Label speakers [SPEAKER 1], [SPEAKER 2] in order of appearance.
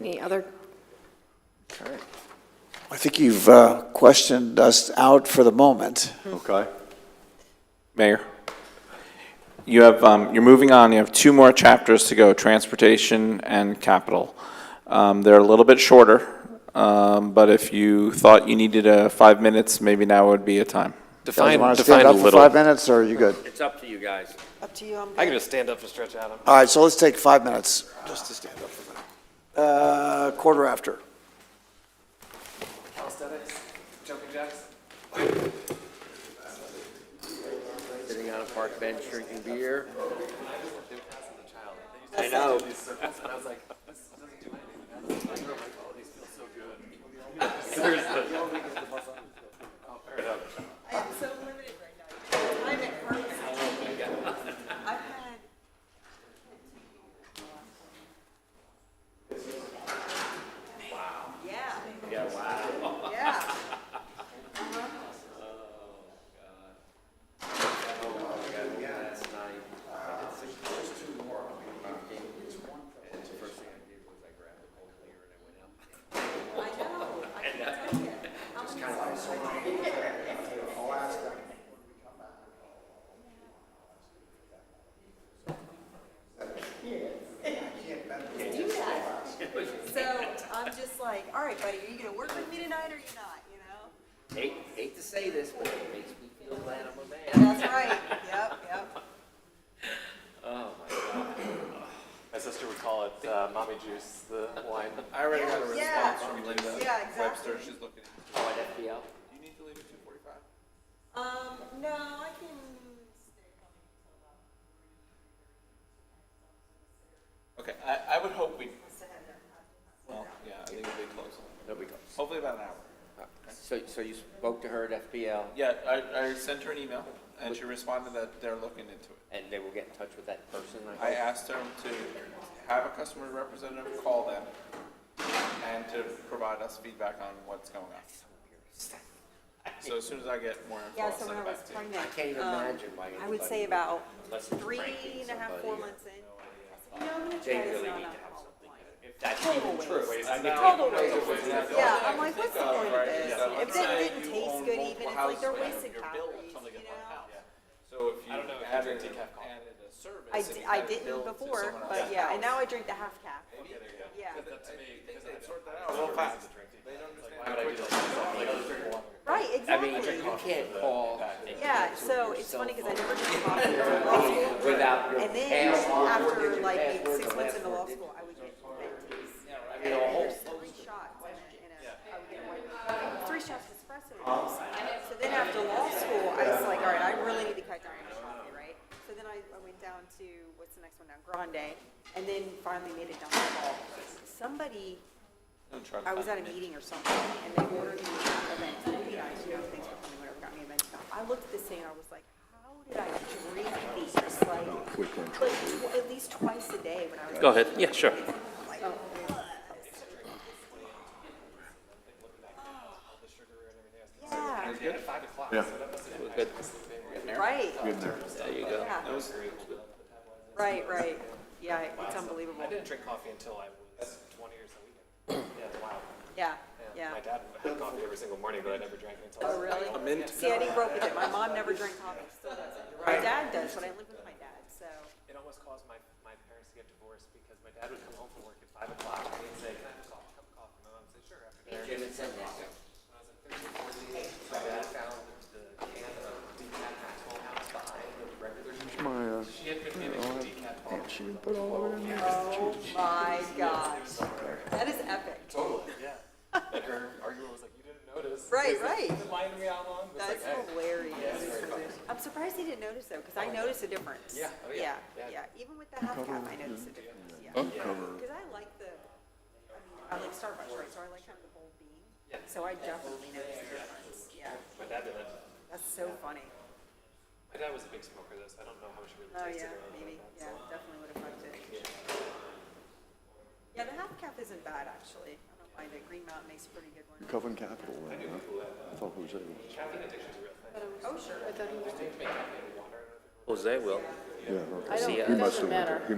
[SPEAKER 1] Any other? Kurt?
[SPEAKER 2] I think you've uh, questioned us out for the moment.
[SPEAKER 3] Okay. Mayor, you have, um, you're moving on, you have two more chapters to go, transportation and capital. Um, They're a little bit shorter, um, but if you thought you needed uh, five minutes, maybe now would be a time.
[SPEAKER 2] Guys,
[SPEAKER 4] Define,
[SPEAKER 2] want to
[SPEAKER 4] define
[SPEAKER 2] stand
[SPEAKER 4] a
[SPEAKER 2] up for five
[SPEAKER 4] little.
[SPEAKER 2] minutes, or are you good?
[SPEAKER 4] It's up to you guys.
[SPEAKER 1] Up to you.
[SPEAKER 4] I can just stand up and stretch out.
[SPEAKER 2] All right, so let's take five minutes,
[SPEAKER 4] Just to stand up for a minute.
[SPEAKER 2] Uh, quarter after.
[SPEAKER 4] Calisthenics, jumping jacks. Sitting on a park bench drinking beer. I know.
[SPEAKER 5] I am so limited right now. I'm at work. I've had Wow. Yeah. Yeah, wow. Yeah. I know, I can tell you. I'm So I'm just like, all right, buddy, are you gonna work with me tonight or are you not, you know?
[SPEAKER 4] Hate, hate to say this, but it makes me feel glad I'm a man.
[SPEAKER 5] That's right, yep, yep.
[SPEAKER 6] My sister would call it uh, mommy juice, the wine.
[SPEAKER 4] I already got a
[SPEAKER 5] Yeah,
[SPEAKER 4] response from Linda.
[SPEAKER 5] yeah, exactly.
[SPEAKER 4] Oh, at FPL?
[SPEAKER 5] Um, no, I can stay.
[SPEAKER 7] Okay, I, I would hope we,
[SPEAKER 5] Let's have that.
[SPEAKER 7] well, yeah, I think it'll be close.
[SPEAKER 4] There we go.
[SPEAKER 7] Hopefully about an hour.
[SPEAKER 4] So, so you spoke to her at FPL
[SPEAKER 7] Yeah, I, I sent her an email and she responded that they're looking into it.
[SPEAKER 4] and they will get in touch with that person?
[SPEAKER 7] I
[SPEAKER 4] hope?
[SPEAKER 7] asked her to have a customer representative call them and to provide us feedback on what's going on. So as soon as I get more info,
[SPEAKER 5] Yeah,
[SPEAKER 7] I'll
[SPEAKER 5] so
[SPEAKER 7] send
[SPEAKER 5] when I
[SPEAKER 7] it
[SPEAKER 5] was
[SPEAKER 7] back to you.
[SPEAKER 5] pregnant.
[SPEAKER 4] can't even
[SPEAKER 5] um,
[SPEAKER 4] imagine why
[SPEAKER 5] I would
[SPEAKER 4] anybody
[SPEAKER 5] say
[SPEAKER 4] would-
[SPEAKER 5] about
[SPEAKER 4] Unless it's
[SPEAKER 5] three
[SPEAKER 4] pranking
[SPEAKER 5] and a half,
[SPEAKER 4] somebody
[SPEAKER 5] four
[SPEAKER 4] or-
[SPEAKER 5] months in. I said, You know, I'm gonna try this out on alcohol."
[SPEAKER 4] They really need to have something. If that's even true.
[SPEAKER 5] Total waste. Yeah, I'm like, what's the point of this? If it didn't taste good even, it's like they're wasting calories, you know?
[SPEAKER 7] So if you added, added a service.
[SPEAKER 5] I,
[SPEAKER 7] and you
[SPEAKER 5] d- I
[SPEAKER 7] had it
[SPEAKER 5] didn't
[SPEAKER 7] billed to
[SPEAKER 5] before,
[SPEAKER 7] someone
[SPEAKER 5] but
[SPEAKER 7] else's
[SPEAKER 5] yeah,
[SPEAKER 7] house,
[SPEAKER 5] and now I drink the half cap. Yeah, right,
[SPEAKER 4] I mean,
[SPEAKER 5] exactly.
[SPEAKER 4] you can't call
[SPEAKER 5] Yeah, so it's funny because I never drink coffee until law school.
[SPEAKER 4] without your
[SPEAKER 5] And then after like maybe
[SPEAKER 4] password,
[SPEAKER 5] six
[SPEAKER 4] the
[SPEAKER 5] months into
[SPEAKER 4] password
[SPEAKER 5] law
[SPEAKER 4] didn't
[SPEAKER 5] school, I would get Mentos.
[SPEAKER 4] get a
[SPEAKER 5] And
[SPEAKER 4] whole
[SPEAKER 5] there's three shots in it, and I would get one, three shots of espresso.
[SPEAKER 4] Uh-huh.
[SPEAKER 5] So then after law school, I was like, all right, I really need to cut down on coffee, right? So then I, I went down to, what's the next one down, Grande, and then finally made it down to Ball. Somebody I was at a meeting or something, and they ordered me a Mentos, you guys, you know, things were coming, whatever, got me a Mentos. I looked at this thing, and I was like, how did I drink these, like, like, tw- at least twice a day when I was.
[SPEAKER 4] Go ahead, yeah, sure.
[SPEAKER 5] like, ugh. Yeah,
[SPEAKER 4] Good.
[SPEAKER 5] right,
[SPEAKER 4] There you go.
[SPEAKER 5] yeah. Right, right, yeah, it's unbelievable,
[SPEAKER 6] I didn't drink coffee until I was 20 or so. Yeah, it's wild.
[SPEAKER 5] yeah, yeah.
[SPEAKER 6] My dad had coffee every single morning, but I never drank it until.
[SPEAKER 5] Oh, really? See, I didn't grow up with it, my mom never drank coffee, still doesn't. My dad does, but I live with my dad, so,
[SPEAKER 6] It almost caused my, my parents to get divorced because my dad would come home from work at 5 o'clock and he'd say, Can I have a coffee? Cup of coffee? My mom would say, Sure, after dinner.
[SPEAKER 4] Jim had said that.
[SPEAKER 6] When I was like 13, 14, my dad found the can of decaf Maxwell House behind the regular. She had been giving decaf coffee.
[SPEAKER 5] oh my God. That is epic.
[SPEAKER 6] Totally, yeah. Like her argument was like, You didn't notice.
[SPEAKER 5] Right, right.
[SPEAKER 6] Reminded me how long? It was like,
[SPEAKER 5] That's
[SPEAKER 6] "Hey."
[SPEAKER 5] hilarious. I'm surprised they didn't notice though, because I noticed a difference. Yeah,
[SPEAKER 6] oh,
[SPEAKER 5] yeah.
[SPEAKER 6] yeah,
[SPEAKER 5] Yeah, even with the half cap, I noticed a difference, yeah. Because I like the, I mean, I like Starbucks, right, so I like kind of the bold bean. So I definitely noticed a difference, yeah.
[SPEAKER 6] My dad did that.
[SPEAKER 5] That's so funny.
[SPEAKER 6] My dad was a big smoker though, so I don't know how much it really
[SPEAKER 5] Oh,
[SPEAKER 6] tasted.
[SPEAKER 5] yeah,
[SPEAKER 6] or anything
[SPEAKER 5] maybe,
[SPEAKER 6] like
[SPEAKER 5] yeah,
[SPEAKER 6] that, so-
[SPEAKER 5] definitely would have liked it. Yeah, the half cap isn't bad, actually. I don't mind it. Green Mountain makes a pretty good one.
[SPEAKER 8] Coven Capital,
[SPEAKER 2] uh,
[SPEAKER 8] then, huh? I thought Jose was.
[SPEAKER 5] Oh, sure.
[SPEAKER 4] Jose will.
[SPEAKER 8] Yeah, okay.
[SPEAKER 9] I don't,
[SPEAKER 4] See,
[SPEAKER 9] it
[SPEAKER 4] uh,
[SPEAKER 8] He must
[SPEAKER 9] doesn't
[SPEAKER 8] have went to-
[SPEAKER 9] matter.
[SPEAKER 8] he